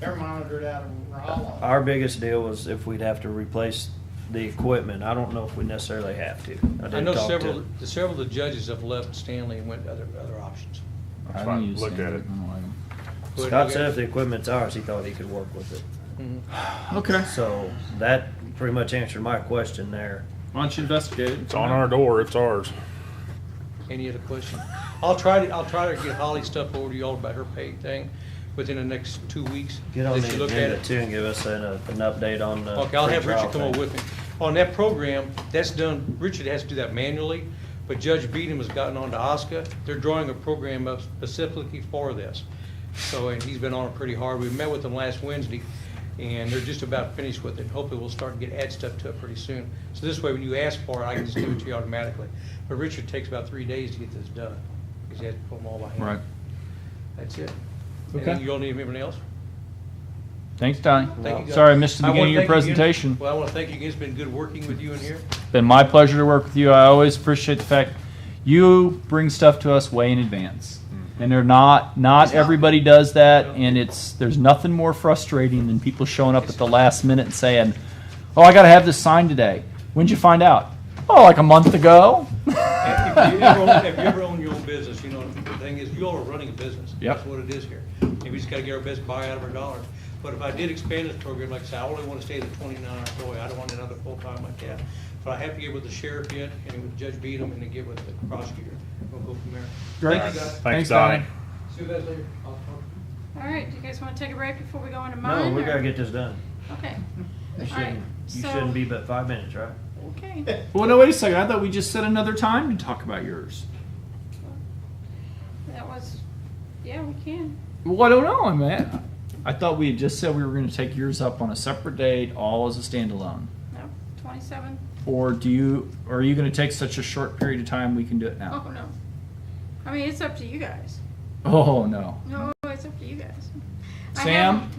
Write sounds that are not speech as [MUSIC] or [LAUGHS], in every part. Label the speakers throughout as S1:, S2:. S1: They're monitored out of Raleigh.
S2: Our biggest deal was if we'd have to replace the equipment. I don't know if we necessarily have to. I
S3: I
S2: didn't
S3: know
S2: talk to-
S3: several, several of the judges have left Stanley and went other, other options.
S4: That's
S5: I
S4: why I
S5: didn't use
S4: looked at it.
S5: standard. I don't like 'em.
S3: But
S2: Scott
S3: we
S2: said
S3: got-
S2: if the equipment's ours, he thought he could work with it.
S3: Mhm.
S5: Okay.
S2: So that pretty much answered my question there.
S5: Why don't you investigate it?
S4: It's on our door, it's ours.
S3: Any other question? I'll try to, I'll try to get Holly's stuff over to y'all about her pay thing within the next two weeks.
S2: Get on
S3: Let you
S2: the
S3: look at
S2: agenda
S3: it.
S2: too and give us an, uh, an update on the.
S3: Okay, I'll have
S2: free
S3: Richard
S2: trial
S3: come over
S2: thing.
S3: with me. On that program, that's done, Richard has to do that manually, but Judge Beadham has gotten on to Oscar. They're drawing a program up specifically for this. So, and he's been on it pretty hard. We met with them last Wednesday, and they're just about finished with it. Hopefully, we'll start to get add stuff to it pretty soon. So this way, when you ask for it, I can just give it to you automatically. But Richard takes about three days to get this done, because he has to put them all by hand.
S5: Right.
S3: That's it.
S5: Okay.
S3: And you all need anything else?
S5: Thanks, Donnie.
S3: Thank you, guys.
S5: Sorry I missed the
S3: wanna
S5: beginning of your
S3: thank you again.
S5: presentation.
S3: Well, I want to thank you again. It's been good working with you in
S5: [LAUGHS]
S3: here.
S5: Been my pleasure to work with you. I always appreciate the fact you bring stuff to us way in advance. And they're not not everybody does that and it's there's nothing more frustrating than people showing up at the last minute and saying, "Oh, I got to have this signed today." When'd you find out? Oh, like a month ago.
S3: If you ever own- if you ever own your own business, you know, the thing is, you all are running a business.
S5: Yep.
S3: That's what it is here. And we just gotta get our best buy out of our dollars. But if I did expand this program, like I said, I only wanna stay at the twenty-nine employee. I don't want another full-time like that. But I have to get with the sheriff yet, and with Judge Beadham, and then get with the prosecutor. We'll go from there.
S5: Great.
S3: Thank you, guys.
S4: Thanks,
S5: Thanks,
S4: Donnie.
S5: Donnie.
S3: See you guys later. I'll talk to you.
S6: All right, do you guys want to take a break before we go into mine?
S2: No, we
S6: or-
S2: gotta get this done.
S6: Okay,
S2: [LAUGHS] You
S6: All
S2: shouldn't,
S6: right,
S2: you
S6: so-
S2: shouldn't be but five minutes, right? [LAUGHS]
S6: okay.
S5: Well, no, wait a second. I thought we just set another time to talk about yours.
S6: That was, yeah, we can.
S5: Well, I don't know, man. I thought we had just said we were going to take yours up on a separate date, all as a standalone.
S6: No, twenty-seven.
S5: Or do you? Or are you going to take such a short period of time? We can do it
S6: Oh,
S2: [LAUGHS]
S5: now.
S6: no. I mean, it's up to you guys.
S5: Oh no.
S6: No, it's up to you guys. I
S5: Sam?
S6: haven't-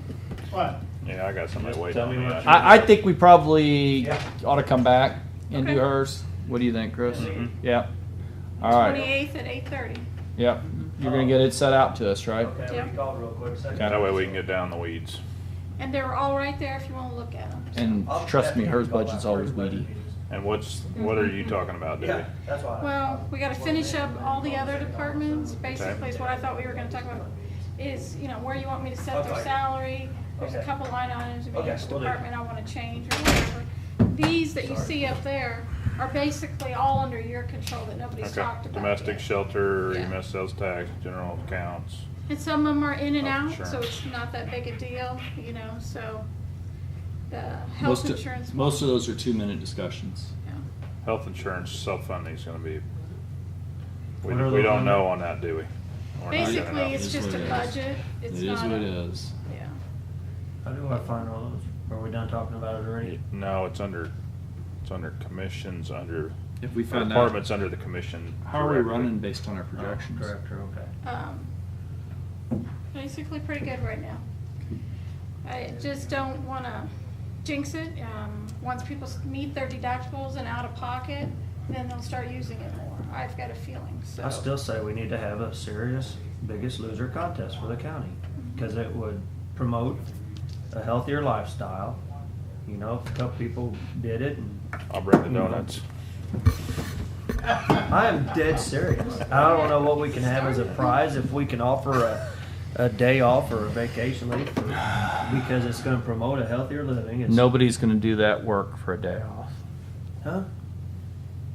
S1: What?
S4: Yeah, I got somebody
S2: Just
S4: waiting
S2: tell me
S4: on me.
S2: what you-
S5: I, I think we probably
S2: Yeah.
S5: ought to come back and do
S6: Okay.
S5: hers. What do you think, Chris?
S2: Mhm.
S5: Yeah. All right.
S6: Twenty-eighth at eight-thirty.
S5: Yep. You're going to get it set out to us, right?
S2: Okay,
S6: Yeah.
S2: we called real quick. second.
S4: That way we can get down the weeds.
S6: And they were all right there if you want to look at them.
S5: And
S2: I'll-
S5: trust me,
S2: that's
S5: hers
S2: what we call
S5: budget's
S2: our
S5: always
S2: budget
S5: weedy.
S2: meetings.
S4: And what's,
S6: Mm-hmm.
S4: what are you talking about, Debbie?
S2: Yeah, that's why.
S6: Well, we gotta finish up all the other departments, basically is what I thought we were gonna talk about, is, you know, where you want me to set their salary. There's a
S2: Okay.
S6: couple line items in
S2: Okay,
S6: each
S2: we'll do.
S6: department I wanna change or whatever. These that you see up there are basically all under your control that nobody's
S4: Okay,
S6: talked about
S4: domestic
S6: yet.
S4: shelter,
S6: Yeah.
S4: EMS sales tax, general accounts.
S6: And some of them are in
S4: Oh,
S6: and out, so
S4: Insurance.
S6: it's not that big a deal, you know, so the
S5: Most
S6: health insurance.
S5: of, most of those are two minute discussions.
S6: yeah.
S4: Health insurance self-funding is gonna be, we,
S2: What are
S4: we
S2: those
S4: don't
S2: on?
S4: know on that, do we? We're not gonna
S6: Basically,
S4: know.
S6: it's
S5: It is
S6: just a
S5: what it is.
S6: budget.
S5: It
S6: It's
S5: is
S6: not
S5: what it
S6: a-
S5: is.
S6: Yeah.
S2: How do I find all those? Are we done talking about it already? Oh,
S4: No, it's under, it's under commissions, under,
S5: If we
S4: our
S5: find out,
S4: department's under the commission.
S5: how are we
S4: directly.
S5: running based on our
S2: Oh,
S5: projections?
S2: Director, okay.
S6: um, basically pretty good right now. I just don't wanna jinx it. Um, once people s- meet their deductibles and out of pocket, then they'll start using it more. I've got a feeling, so.
S2: I still say we need to have a serious biggest loser contest for the county, because it would promote a healthier lifestyle. You know, if a couple people did it, and
S4: I'll bring the donuts.
S2: I am dead serious. I don't know what we can have as a prize, if we can offer a, a day off or a vacation leave, for- because it's gonna promote a healthier living. It's-
S5: Nobody's going to do that work for a day off.
S2: Huh?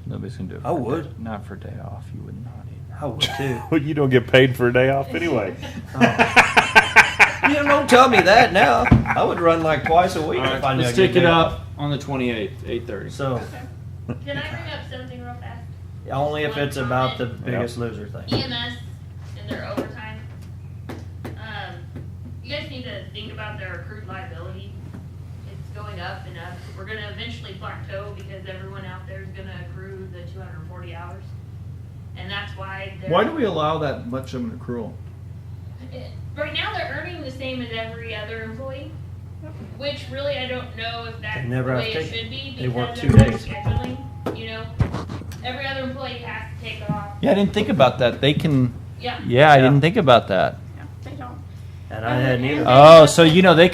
S5: Nobody's going to do it.
S2: I
S5: for a
S2: would.
S5: day- Not for a day off. You would not either.
S2: I would too.
S4: [LAUGHS] Well, you don't get paid for a day off
S2: [LAUGHS]
S4: anyway.
S2: Oh. You don't tell me that now. I would run like twice a week if I knew I
S5: let's
S2: could
S5: take it
S2: do
S5: up on the 28th, 8:30.
S2: So,
S6: Okay.
S7: Can I bring up something real fast?
S2: only if it's about the biggest loser thing.
S7: EMS E and their overtime. Um, you guys need to think about their accrued liability. It's going up and up. We're gonna eventually plateau because everyone out there is gonna accrue the two hundred and forty hours. And that's why they're.
S5: Why do we allow that much of an accrual?
S7: Right now, they're earning the same as every other employee, which really I don't know if that's
S2: They
S7: the
S2: never
S7: way
S2: have
S7: it
S2: taken-
S7: should be.
S2: they work
S7: because
S2: two
S7: of their
S2: days.
S7: Scheduling, you know, every other employee has to take off.
S5: Yeah, I didn't think about that. They can.
S7: Yeah.
S5: Yeah, I
S2: Yeah.
S5: didn't think about that.
S6: Yeah, They don't,
S2: and I hadn't either.
S5: Oh, so you know they